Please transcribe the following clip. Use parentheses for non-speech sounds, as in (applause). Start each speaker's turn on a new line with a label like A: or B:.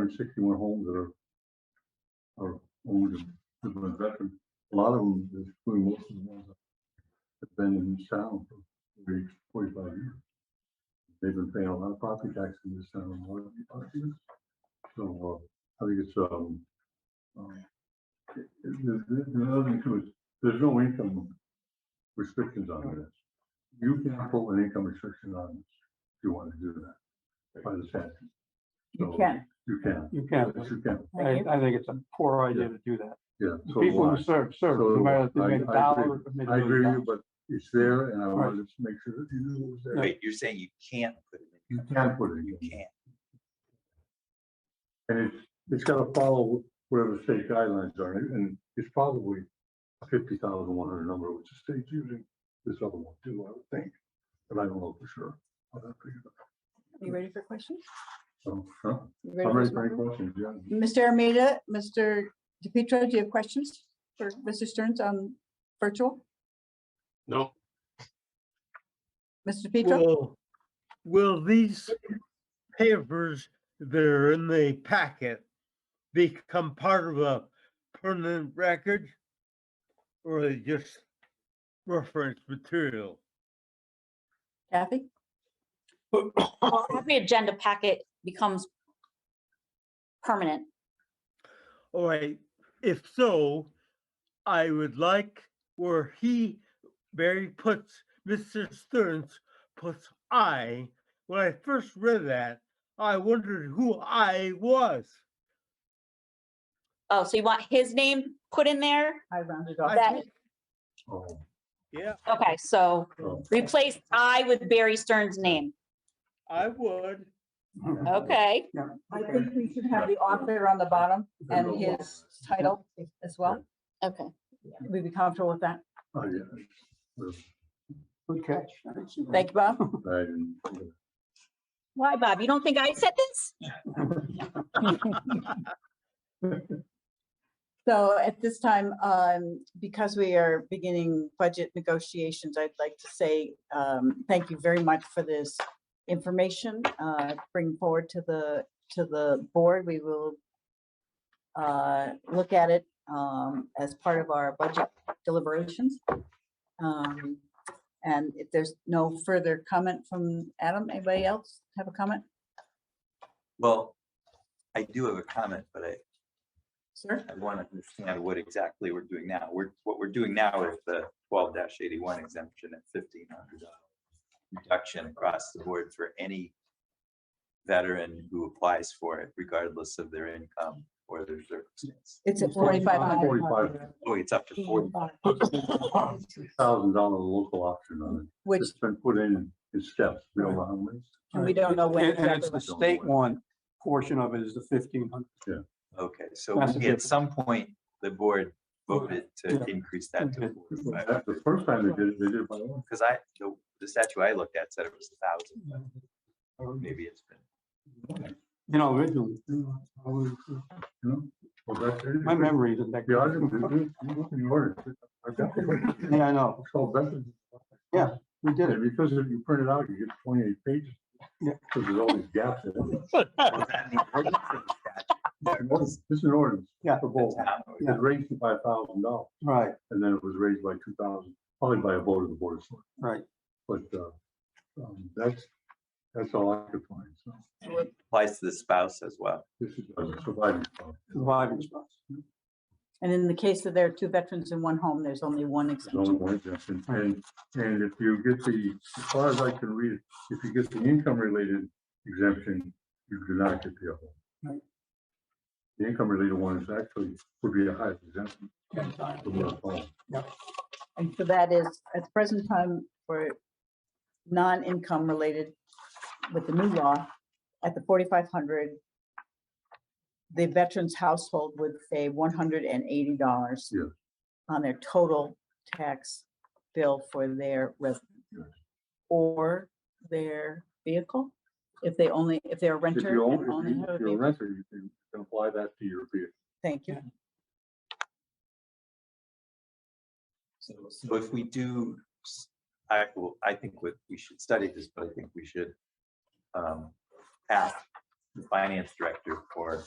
A: hundred sixty-one homes that are are owned and lived by veterans. A lot of them, including most of the ones that have been in this town for 40, 45 years. They've been paying a lot of property tax in this town. a lot of property. So, uh, I think it's, um, um, it- it- the, the- the other thing too is, there's no income restrictions on this. You can put an income restriction on this, if you want to do that, by the statute.
B: You
A: So,
B: can,
A: You can,
C: You can't.
A: yes, you can,
C: I,
B: thank you.
C: I think it's a poor idea to do that.
A: yeah.
C: The
A: so
C: People
A: do I.
C: who serve, serve,
A: So do
C: no matter if they
A: I.
C: made a
A: I- I
C: dollar.
A: agree.
C: or made a
A: I
C: million
A: agree with you,
C: dollars.
A: but it's there and I wanted to make sure that you knew it was there.
D: Wait, you're saying you can't put it in?
C: Mm.
A: You can put it
D: You
A: in.
D: can't.
A: And it's, it's gotta follow whatever state guidelines are, and it's probably fifty thousand one hundred number, which the state's using. This other one too, I would think, but I don't know for sure. I'll have to figure it
B: You ready for questions?
A: out. So, huh?
B: You
A: I'm ready for
B: for
A: any
B: some?
A: questions, yeah.
B: Mr. Armita, Mr. DePietro, do you have questions for Mr. Stearns on virtual?
E: No,
B: Mr. DePietro?
F: Will, will these papers that are in the packet become part of a permanent record? Or are they just reference material?
B: Kathy?
G: Well, every agenda packet becomes permanent.
F: All right, if so, I would like where he, Barry puts, Mr. Stearns puts I. When I first read that, I wondered who I was.
G: Oh, so you want his name put in there?
B: I rounded
F: I
G: That-
F: did,
A: Oh,
F: Yeah,
G: Okay, so
A: oh,
G: replace I with Barry Stern's name.
F: I would.
G: Okay,
B: I think we should have the author on the bottom and his title as well.
G: okay.
B: We'd be comfortable with that.
A: oh, yeah.
C: Good catch. Thanks.
B: Thank you, Bob.
A: I didn't-
G: Why, Bob? You don't think I said this?
B: So at this time, um, because we are beginning budget negotiations, I'd like to say, um, thank you very much for this information, uh, bring forward to the, to the board. We will uh, look at it, um, as part of our budget deliberations. Um, and if there's no further comment from Adam, anybody else have a comment,
D: Well, I do have a comment, but I,
B: sir?
D: I want to understand what exactly we're doing now. We're, what we're doing now is the twelve eighty-one exemption at fifteen hundred dollars reduction across the board for any veteran who applies for it, regardless of their income or their circumstance.
B: It's at forty-five hundred.
A: Forty-five
D: Oh, it's up to forty.
A: thousand dollar local option on it.
B: Which
A: It's been put in in steps, we don't know how many.
B: And we don't know when
C: And, and
B: exactly
C: it's the
A: what-
C: state one portion of it is the fifteen hundred.
D: Okay, so
C: That's
D: we-
C: a
D: at some point, the board voted to
C: Yeah.
D: increase that to
C: Okay.
D: forty-five.
A: That's The first time they did it, they did it by one.
D: Because I, the, the statue I looked at said it was a thousand, but Mm-hmm. maybe it's been.
C: You know, originally, you know, I was-
A: My
C: my memory isn't that.
A: The
C: good.
A: auditor, you look in the order. I've got the-
C: Yeah, I know.
A: It's called veterans.
C: Yeah, We did
A: Yeah,
C: it.
A: because if you print it out, you get twenty-eight pages.
C: Yeah.
A: Because there's all these gaps in (laughs) it.
D: Was that in the ordinance or the statute?
A: This is an ordinance.
C: Yeah.
A: For both. It
C: Yeah.
A: was raised to five thousand dollars,
C: Right,
A: and then it was raised by two thousand, probably by a vote of the board of selectmen.
C: right.
A: But, uh, um, that's, that's all I could find, so.
D: Applies to the spouse as well.
A: This is a surviving. problem.
C: Surviving spouse.
B: And in the case that there are two veterans in one home, there's only one
A: There's only
B: exemption.
A: one exemption, and, and if you get the, as far as I can read, it, if you get the income-related exemption, you do not get the other. one.
C: Right.
A: The income-related one is actually, would be the highest exemption. from what I found.
B: And so that is, at the present time, for non-income related with the new law, at the forty-five hundred, the veteran's household would save one hundred and eighty dollars
A: Yeah.
B: on their total tax bill for their residence
A: Yes.
B: or their vehicle, if they only, if they're a
A: If
B: renter.
A: you
B: and
A: own,
B: only
A: if you-
B: have a
A: if you're a
B: vehicle.
A: renter, you can you can apply that to your vehicle.
B: Thank you.
D: So so if we do, s- I, will- I think what we should study this, but I think we should um, ask the finance director for